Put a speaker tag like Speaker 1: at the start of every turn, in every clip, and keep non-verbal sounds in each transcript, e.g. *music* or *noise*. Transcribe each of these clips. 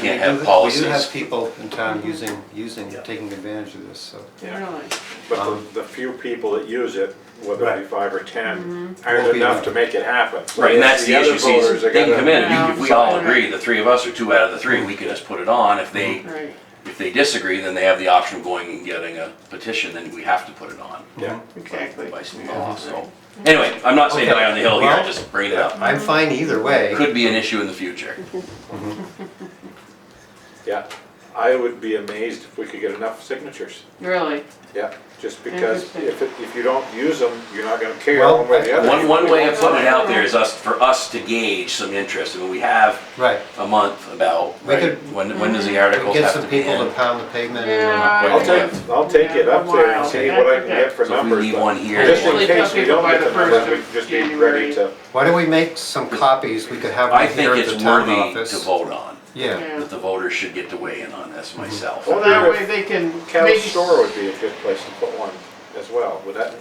Speaker 1: Can't
Speaker 2: We do-
Speaker 1: have
Speaker 2: We do have
Speaker 1: policies.
Speaker 2: people in town using, using,
Speaker 3: Yeah.
Speaker 2: taking advantage of this, so.
Speaker 4: Really?
Speaker 2: Um,
Speaker 5: But the, the few people that use it, whether it be
Speaker 3: Right.
Speaker 5: five or ten,
Speaker 4: Mm-hmm.
Speaker 2: Won't
Speaker 5: aren't
Speaker 2: be
Speaker 5: enough
Speaker 2: enough.
Speaker 5: to make it happen.
Speaker 1: Right, and that's the
Speaker 5: other
Speaker 1: issue, see,
Speaker 5: voters are
Speaker 1: they can
Speaker 5: gonna-
Speaker 1: come in, you- if we all
Speaker 4: Yeah.
Speaker 1: agree, the three of us are two out of the three, we can just put it on, if they,
Speaker 4: Right.
Speaker 2: Mm-hmm.
Speaker 1: if they disagree, then they have the option of going and getting a petition, then we have to put it on.
Speaker 5: Yeah,
Speaker 4: Exactly.
Speaker 1: By some law, so, anyway, I'm not saying die on the hill here, I just bring it up,
Speaker 2: I'm fine either way.
Speaker 1: could be an issue in the future.
Speaker 5: yeah. I would be amazed if we could get enough signatures,
Speaker 4: Really?
Speaker 5: yeah, just because
Speaker 4: Interesting.
Speaker 5: if, it- if you don't use them, you're not gonna care
Speaker 2: Well,
Speaker 5: one way or the other.
Speaker 1: One, one way of putting it out there is us, for us to gauge some interest, I mean, we have
Speaker 2: Right.
Speaker 1: a month about,
Speaker 2: We
Speaker 1: right,
Speaker 2: could-
Speaker 1: when, when does the
Speaker 2: We
Speaker 1: articles
Speaker 2: Get
Speaker 1: have to
Speaker 2: some
Speaker 1: be
Speaker 2: people to
Speaker 1: in?
Speaker 2: pound the pavement
Speaker 4: Yeah.
Speaker 2: and,
Speaker 5: I'll
Speaker 1: Yeah.
Speaker 5: take, I'll take it up there and see what I can get for
Speaker 1: So if we
Speaker 5: numbers,
Speaker 1: leave
Speaker 5: but
Speaker 1: one here-
Speaker 5: just in
Speaker 4: Usually tell
Speaker 5: case we
Speaker 4: people
Speaker 5: don't
Speaker 4: by
Speaker 5: get
Speaker 4: the
Speaker 5: the numbers,
Speaker 4: first
Speaker 5: we
Speaker 4: of
Speaker 5: can just be ready
Speaker 4: January.
Speaker 5: to,
Speaker 2: uh, why don't we make some copies, we could have one
Speaker 1: I think
Speaker 2: here at the
Speaker 1: it's
Speaker 2: town
Speaker 1: worthy to
Speaker 2: office. Mm-hmm.
Speaker 1: vote on,
Speaker 2: Yeah,
Speaker 4: Yeah.
Speaker 1: that the voters should get to weigh in on this myself.
Speaker 4: Well, that way they can
Speaker 5: Callis
Speaker 4: maybe.
Speaker 5: store would be a good place to put one as well. Would that,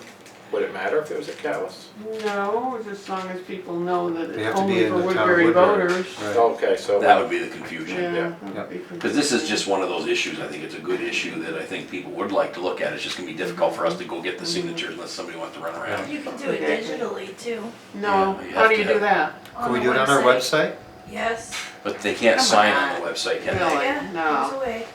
Speaker 5: would it matter if it was at Callis?
Speaker 4: No, it's as long as people know that
Speaker 2: They have
Speaker 4: it's
Speaker 2: to be
Speaker 4: only
Speaker 2: in
Speaker 4: for
Speaker 2: the town of
Speaker 4: Woodbury
Speaker 2: Woodbury.
Speaker 4: voters.
Speaker 2: Right.
Speaker 5: Okay, so.
Speaker 1: That would be the confusion.
Speaker 4: Yeah.
Speaker 5: Yeah.
Speaker 4: that would be-
Speaker 1: Because this is just one of those issues, I think it's a good issue that I think people would like to look at. It's just gonna be difficult for us to go get the signatures unless somebody wants to run around.
Speaker 6: You can do it digitally too.
Speaker 4: No,
Speaker 1: Yeah, you
Speaker 4: how
Speaker 1: have
Speaker 4: do
Speaker 1: to
Speaker 4: you do
Speaker 1: have-
Speaker 4: that?
Speaker 2: can we do it on our website?
Speaker 6: Yes.
Speaker 1: But they can't
Speaker 6: Come
Speaker 1: sign on
Speaker 6: on.
Speaker 1: the website, can
Speaker 4: No.
Speaker 1: they?
Speaker 6: Yeah,
Speaker 4: No.
Speaker 6: there's a way.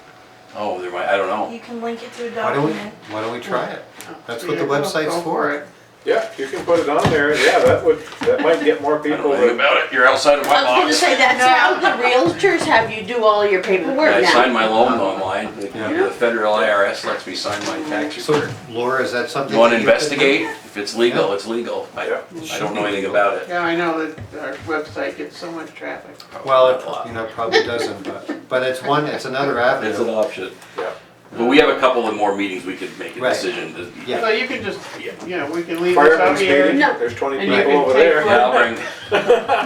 Speaker 1: Oh, there might, I don't know.
Speaker 6: You can link it to a
Speaker 2: Why don't we,
Speaker 6: document.
Speaker 2: why don't we try it? That's what
Speaker 4: Yeah,
Speaker 2: the website's
Speaker 4: go
Speaker 2: for.
Speaker 4: it.
Speaker 5: Yeah, you can put it on there, yeah, that would, that might get more
Speaker 1: I don't know
Speaker 5: people
Speaker 1: anything
Speaker 5: to,
Speaker 1: about it, you're outside of my
Speaker 7: I was gonna
Speaker 1: box.
Speaker 7: say, that's how the realtors have you do all your paperwork
Speaker 1: I
Speaker 7: now.
Speaker 1: signed my loan online, the
Speaker 2: Yeah.
Speaker 1: the federal IRS lets me sign my tax
Speaker 2: So
Speaker 1: report.
Speaker 2: Laura, is that something?
Speaker 1: You wanna
Speaker 2: that could do?
Speaker 1: investigate? If it's legal,
Speaker 2: Yeah.
Speaker 1: it's legal. I,
Speaker 5: Yeah.
Speaker 1: I don't know anything about it.
Speaker 4: Yeah, I know that our website gets so much traffic.
Speaker 2: Well,
Speaker 1: Not a lot.
Speaker 2: it, you know, probably doesn't, but, but it's one, it's another
Speaker 1: It's an
Speaker 2: avenue.
Speaker 1: option.
Speaker 5: yeah.
Speaker 1: But we have a couple of more meetings, we could make a
Speaker 2: Right.
Speaker 1: decision. to-
Speaker 2: Yeah.
Speaker 4: So you can just, you know, we can leave this up
Speaker 5: Fireman's
Speaker 4: here.
Speaker 5: meeting,
Speaker 7: No.
Speaker 5: there's twenty
Speaker 4: And you
Speaker 5: people
Speaker 4: can
Speaker 5: over
Speaker 4: take
Speaker 5: there.
Speaker 4: one.
Speaker 1: Yeah, I'll bring,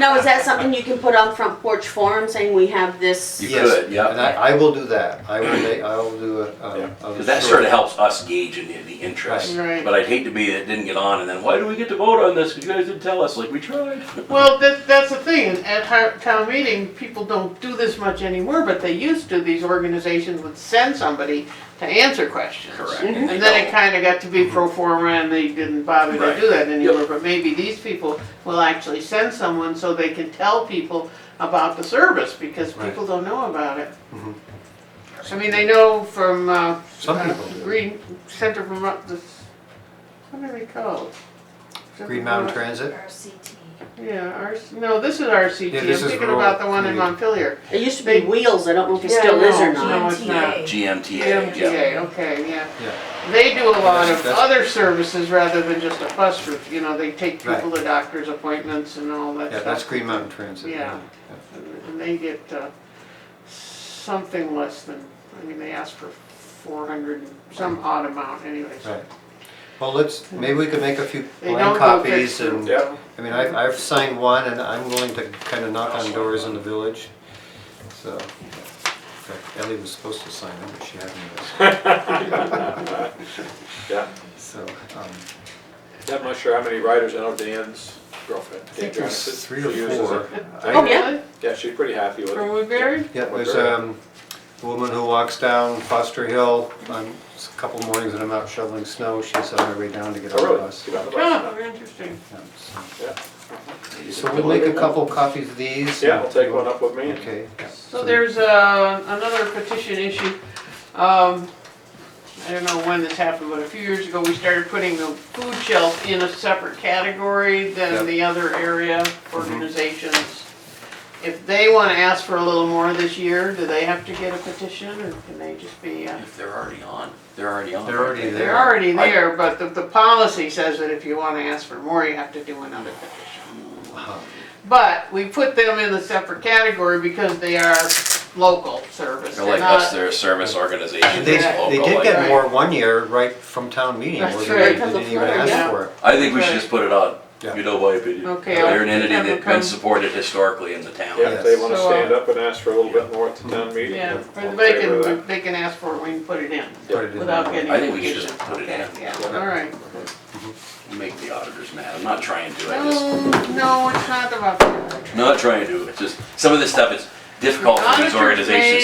Speaker 7: Now, is that something you can put on front porch forum saying we have this?
Speaker 1: you
Speaker 2: Yes,
Speaker 1: could, yeah.
Speaker 2: And I, I will do that. I will, make- I will do a,
Speaker 5: Yeah.
Speaker 2: a. a
Speaker 1: Because that sort of helps us gauge in the, the interest.
Speaker 4: Right. Right.
Speaker 1: But I'd hate to be that it didn't get on, and then why do we get to vote on this? 'Cause you guys didn't tell us. Like we tried.
Speaker 4: Well, that, that's the thing, at our town meeting, people don't do this much anymore, but they used to, these organizations would send somebody to answer questions.
Speaker 1: *laughs* Correct. And they
Speaker 4: And then it
Speaker 1: don't.
Speaker 4: kinda got to be pro forma and they didn't bother
Speaker 1: Right.
Speaker 4: to do that anymore,
Speaker 1: Yep.
Speaker 4: but maybe these people will actually send someone so they can tell people about the service, because
Speaker 2: Right.
Speaker 4: people don't know about it.
Speaker 2: Mhm.
Speaker 4: I mean, they know from, uh,
Speaker 2: Some
Speaker 4: uh,
Speaker 2: people do.
Speaker 4: Green, Center Vermont, this, what are they called? Center
Speaker 2: Green Mountain
Speaker 4: Vermont-
Speaker 2: Transit?
Speaker 6: RCT.
Speaker 4: yeah, our, no, this is RCT,
Speaker 2: Yeah,
Speaker 4: I'm
Speaker 2: this is
Speaker 4: thinking
Speaker 2: rural
Speaker 4: about the one in
Speaker 2: community.
Speaker 4: Montpelier.
Speaker 7: It used to be wheels, I don't know if it
Speaker 4: Yeah,
Speaker 7: still is
Speaker 4: no,
Speaker 7: or
Speaker 4: no.
Speaker 7: not.
Speaker 4: it's not.
Speaker 6: GMTA.
Speaker 1: GMTA. Yeah.
Speaker 4: MTA, okay, yeah.
Speaker 2: Yeah.
Speaker 4: They do a lot of
Speaker 2: That's-
Speaker 4: other services rather than just a bus route, you know, they take
Speaker 2: Right.
Speaker 4: people to doctor's appointments and all that
Speaker 2: Yeah, that's
Speaker 4: stuff.
Speaker 2: Green Mountain Transit.
Speaker 4: Yeah. And they get, uh, something less than, I mean, they ask for four hundred, some odd amount anyways.
Speaker 2: Right. Well, let's, maybe we could make a few
Speaker 4: They don't
Speaker 2: blank
Speaker 4: go
Speaker 2: copies
Speaker 4: fixed
Speaker 2: and,
Speaker 4: route,
Speaker 5: Yeah.
Speaker 4: though.
Speaker 2: I mean, I've, I've signed one and I'm willing to kind of knock on doors in the village, so. in fact, Ellie was supposed to sign them, but she hadn't,
Speaker 5: *laughs* Yeah,
Speaker 2: so. um,
Speaker 5: I'm not sure how many riders, I know Dan's girlfriend,
Speaker 2: I
Speaker 5: Dan
Speaker 2: think
Speaker 5: Johnson.
Speaker 2: there's three or
Speaker 5: she uses
Speaker 2: four.
Speaker 5: it.
Speaker 2: I-
Speaker 7: Oh, yeah.
Speaker 4: Really?
Speaker 5: Yeah, she's pretty happy with
Speaker 4: From
Speaker 5: it.
Speaker 4: Woodbury?
Speaker 2: Yeah, there's um, a woman who walks down Foster Hill, on it's a couple mornings when I'm out shoveling snow, she's on her way down to get on
Speaker 5: Oh,
Speaker 2: the
Speaker 5: really?
Speaker 2: bus.
Speaker 5: Get on the bus.
Speaker 4: Oh, interesting.
Speaker 2: Yeah, so-
Speaker 5: Yeah.
Speaker 2: So we'll make a couple copies of these.
Speaker 5: Yeah, I'll take one up with me.
Speaker 2: Okay.
Speaker 4: So there's uh, another petition issue. Um, I don't know when this happened, but a few years ago, we started putting the food shelf in a separate category
Speaker 2: Yep.
Speaker 4: than the other area
Speaker 1: Mm-hmm.
Speaker 4: organizations. If they want to ask for a little more this year, do they have to get a petition or can they just be, uh,
Speaker 1: If they're already on, they're already on.
Speaker 2: They're already there.
Speaker 4: they're already
Speaker 1: I-
Speaker 4: there, but the, the policy says that if you want to ask for more, you have to do another petition.
Speaker 2: Wow.
Speaker 4: But we put them in a separate category because they are local service.
Speaker 1: They're like
Speaker 4: not-
Speaker 1: us. They're a service organization.
Speaker 2: They,
Speaker 1: that's
Speaker 2: they
Speaker 1: local,
Speaker 2: did
Speaker 1: like-
Speaker 2: get more one year right from town meeting,
Speaker 4: That's
Speaker 2: wasn't
Speaker 4: right,
Speaker 2: it? They
Speaker 7: because of
Speaker 2: didn't even
Speaker 7: Florida,
Speaker 2: ask
Speaker 4: yeah.
Speaker 2: for it.
Speaker 1: I think we should just put it on.
Speaker 2: Yeah.
Speaker 1: You know my opinion.
Speaker 4: Okay,
Speaker 1: They're an
Speaker 4: I'll-
Speaker 1: entity
Speaker 4: I'll
Speaker 1: that's
Speaker 4: come.
Speaker 1: been supported historically in the town.
Speaker 5: Yeah, if they wanna
Speaker 4: So, uh,
Speaker 5: stand up and ask for a little bit more at the town meeting.
Speaker 4: Yeah,
Speaker 5: I'm in
Speaker 4: they
Speaker 5: favor of
Speaker 4: can,
Speaker 5: that.
Speaker 4: they can ask for it, we can put it in
Speaker 2: Put it in
Speaker 4: without
Speaker 2: there.
Speaker 4: getting.
Speaker 1: I think we should just put it in.
Speaker 4: Okay, Yeah, all right.
Speaker 1: Make the auditors mad. I'm not trying to. I just
Speaker 4: No, no, it's not about that.
Speaker 1: not trying to. It's just some of this stuff. It's difficult for these organizations
Speaker 4: Monitors may